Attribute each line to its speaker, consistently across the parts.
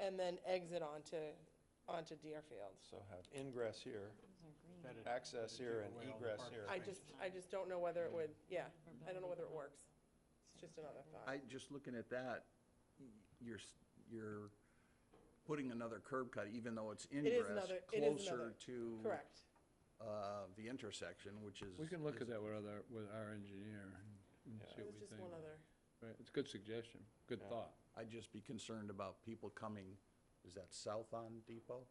Speaker 1: and then exit onto, onto Deerfield.
Speaker 2: So have ingress here,
Speaker 3: That'd-
Speaker 2: access
Speaker 3: that'd
Speaker 2: here
Speaker 3: take
Speaker 2: and
Speaker 3: away all the
Speaker 2: egress
Speaker 3: parking
Speaker 2: here.
Speaker 1: I
Speaker 3: spaces.
Speaker 1: just, I just don't know whether it would, yeah, I don't know whether it works. It's just another thought.
Speaker 4: I, just looking at that, y- you're, s- you're putting another curb cut, even though it's ingress,
Speaker 1: another- it is another-
Speaker 4: closer to
Speaker 1: Correct.
Speaker 4: uh, the intersection, which is.
Speaker 5: We can look at that with other, with our engineer and
Speaker 2: Yeah.
Speaker 5: see
Speaker 1: It
Speaker 5: what
Speaker 1: was
Speaker 5: we
Speaker 1: just
Speaker 5: think.
Speaker 1: one other,
Speaker 5: Right, It's a good suggestion, good
Speaker 2: Yeah.
Speaker 5: thought.
Speaker 4: I'd just be concerned about people coming, is that south on Depot?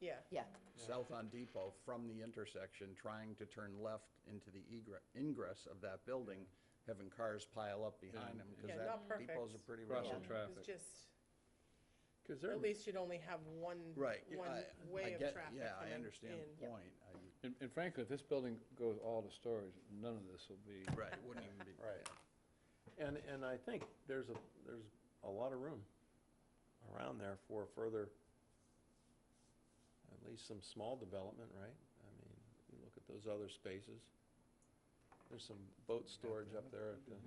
Speaker 1: yeah.
Speaker 6: Yeah,
Speaker 4: South on Depot from the intersection, trying to turn left into the egre- ingress of that building, having cars pile up behind them,
Speaker 1: Yeah,
Speaker 4: because that
Speaker 1: not
Speaker 4: Depot's a
Speaker 1: perfect.
Speaker 4: pretty rough.
Speaker 5: Crossing
Speaker 6: Yeah.
Speaker 1: It's
Speaker 5: traffic.
Speaker 1: just,
Speaker 5: Because
Speaker 1: at least you'd only have one,
Speaker 4: Right. yeah,
Speaker 1: one
Speaker 4: I- I
Speaker 1: way of
Speaker 4: get-
Speaker 1: traffic
Speaker 4: Yeah, I
Speaker 1: coming
Speaker 4: understand
Speaker 1: in.
Speaker 4: the point. I-
Speaker 5: And and frankly, if this building goes all to storage, none of this will be,
Speaker 4: Right, it wouldn't even be.
Speaker 2: Right. And, and I think there's a, there's a lot of room around there for further, at least some small development, right? I mean, you look at those other spaces. There's some boat storage up there at the,
Speaker 5: that's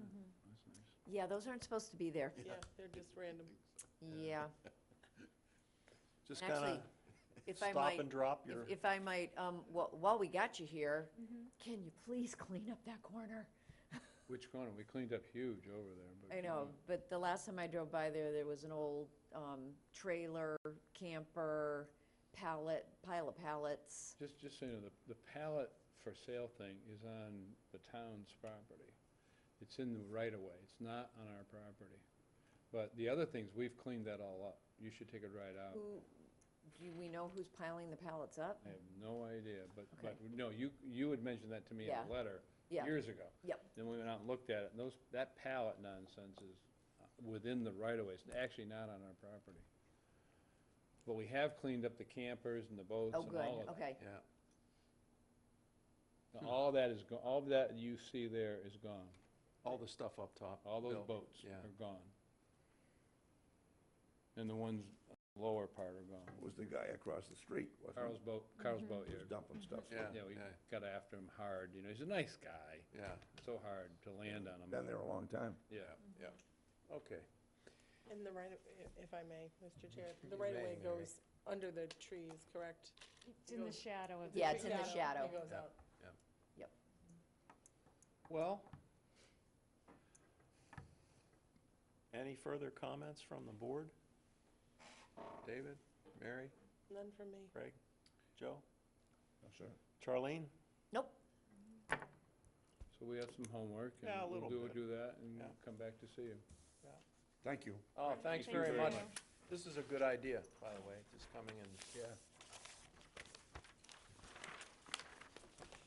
Speaker 5: nice.
Speaker 6: yeah, those aren't supposed to be there.
Speaker 1: Yeah, they're just random.
Speaker 6: Yeah.
Speaker 2: just
Speaker 6: And
Speaker 2: kind
Speaker 6: actually,
Speaker 2: of
Speaker 6: If I
Speaker 2: stop
Speaker 6: might,
Speaker 2: and drop
Speaker 6: if-
Speaker 2: your,
Speaker 6: if I might, um, wh- while we got you here, can you please clean up that corner?
Speaker 5: Which corner? We cleaned up huge over there, but.
Speaker 6: I know, but the last time I drove by there, there was an old um, trailer, camper, pallet, pile of pallets.
Speaker 5: Just, just so you know, the, the pallet for sale thing is on the town's property. It's in the right of way. It's not on our property. But the other things, we've cleaned that all up. You should take a ride out.
Speaker 6: Who, do we know who's piling the pallets up?
Speaker 5: I have no idea, but, but, no, you, you had mentioned that to me in
Speaker 6: Yeah.
Speaker 5: a letter
Speaker 6: Yeah.
Speaker 5: years ago.
Speaker 6: Yep.
Speaker 5: Then we went out and looked at it, and those, that pallet nonsense is uh, within the right of ways, actually not on our property. But we have cleaned up the campers and the boats
Speaker 6: Oh,
Speaker 5: and
Speaker 6: good,
Speaker 5: all of that.
Speaker 6: okay.
Speaker 2: yeah.
Speaker 5: Now, All of that is, go- all of that you see there is gone.
Speaker 2: All the stuff up top.
Speaker 5: All those
Speaker 2: Bill.
Speaker 5: boats
Speaker 2: Yeah.
Speaker 5: are gone. And the ones on the lower part are gone.
Speaker 7: was the guy across the street,
Speaker 5: Carl's
Speaker 7: wasn't
Speaker 5: boat,
Speaker 6: Mm-hmm.
Speaker 5: Carl's boat,
Speaker 7: he?
Speaker 5: yeah.
Speaker 7: Was dumping stuff.
Speaker 5: Yeah, we
Speaker 2: yeah,
Speaker 5: got after him hard, you know, he's a nice guy.
Speaker 2: Yeah,
Speaker 5: so hard to land on them.
Speaker 7: Been there a long time.
Speaker 5: Yeah.
Speaker 2: yeah. Okay.
Speaker 1: And the right, of- i- if I may, Mr. Chair, the
Speaker 2: You
Speaker 1: right of
Speaker 2: may,
Speaker 1: way
Speaker 2: Mary.
Speaker 1: goes under the trees, correct?
Speaker 8: It's in the shadow of the.
Speaker 6: Yeah, it's in the shadow.
Speaker 1: It goes
Speaker 2: Yeah.
Speaker 1: out.
Speaker 2: Well, any further comments from the board? David, Mary,
Speaker 1: None from me.
Speaker 2: Craig, Joe,
Speaker 7: Sure.
Speaker 2: Charlene?
Speaker 6: Nope,
Speaker 5: So we have some homework, and
Speaker 2: Yeah, a
Speaker 5: we'll
Speaker 2: little
Speaker 5: do,
Speaker 2: bit.
Speaker 5: do that, and
Speaker 2: Yeah.
Speaker 5: come back to see you.
Speaker 7: Thank you.
Speaker 2: Oh, thanks
Speaker 8: Thank
Speaker 2: very
Speaker 8: you.
Speaker 2: much. This is a good idea, by the way, just coming in.
Speaker 7: Yeah.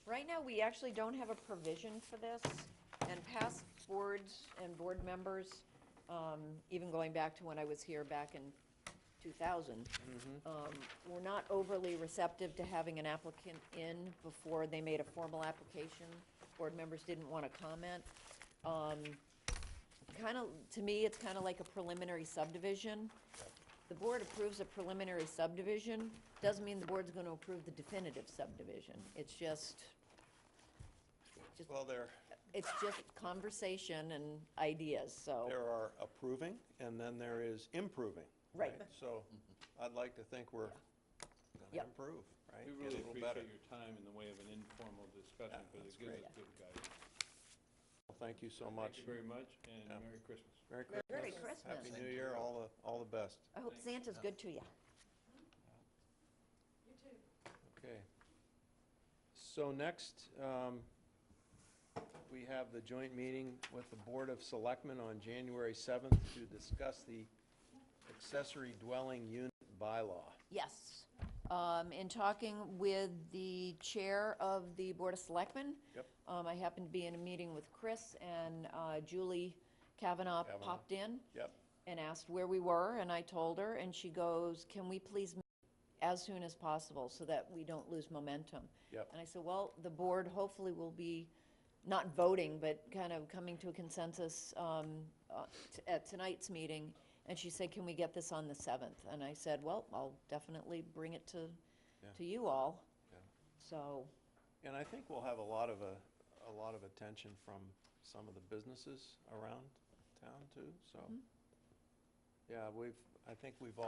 Speaker 6: Right now, we actually don't have a provision for this, and past boards and board members, um, even going back to when I was here back in 2000, um, were not overly receptive to having an applicant in before they made a formal application. Board members didn't want to comment. Kind of, to me, it's kind of like a preliminary subdivision. The board approves a preliminary subdivision, doesn't mean the board's going to approve the definitive subdivision. It's just,
Speaker 2: Well, there,
Speaker 6: it's just conversation and ideas, so.
Speaker 2: there are approving, and then there is improving.
Speaker 6: Right.
Speaker 2: So I'd like to think we're
Speaker 6: Yep.
Speaker 2: gonna improve, right?
Speaker 5: We
Speaker 2: Get a
Speaker 5: really
Speaker 2: little better.
Speaker 5: appreciate your time in the way of an informal discussion,
Speaker 2: Yeah,
Speaker 5: because
Speaker 2: that's
Speaker 5: it gives
Speaker 2: great.
Speaker 5: us good guidance.
Speaker 2: Well, Thank you so much.
Speaker 5: Thank you very much, and
Speaker 2: Yeah.
Speaker 5: Merry Christmas.
Speaker 2: Merry
Speaker 6: Merry
Speaker 2: Christmas. Happy
Speaker 6: Christmas.
Speaker 2: New Year, all the, all the best.
Speaker 6: I hope Santa's good to you.
Speaker 2: Okay. So next, um, we have the joint meeting with the Board of Selectmen on January 7th to discuss the accessory dwelling unit bylaw.
Speaker 6: Yes. Um, In talking with the chair of the Board of Selectmen.
Speaker 2: Yep.
Speaker 6: um, I happened to be in a meeting with Chris, and uh, Julie Kavanaugh
Speaker 2: Kavanaugh.
Speaker 6: popped in.
Speaker 2: Yep.
Speaker 6: and asked where we were, and I told her, and she goes, can we please meet as soon as possible so that we don't lose momentum?
Speaker 2: Yep.
Speaker 6: And I said, well, the board hopefully will be, not voting, but kind of coming to a consensus um, uh, t- at tonight's meeting. And she said, can we get this on the 7th? And I said, well, I'll definitely bring it to, to you all.
Speaker 2: Yeah.
Speaker 6: So,
Speaker 2: And I think we'll have a lot of, uh, a lot of attention from some of the businesses around town too, so. Yeah, we've, I think we've all.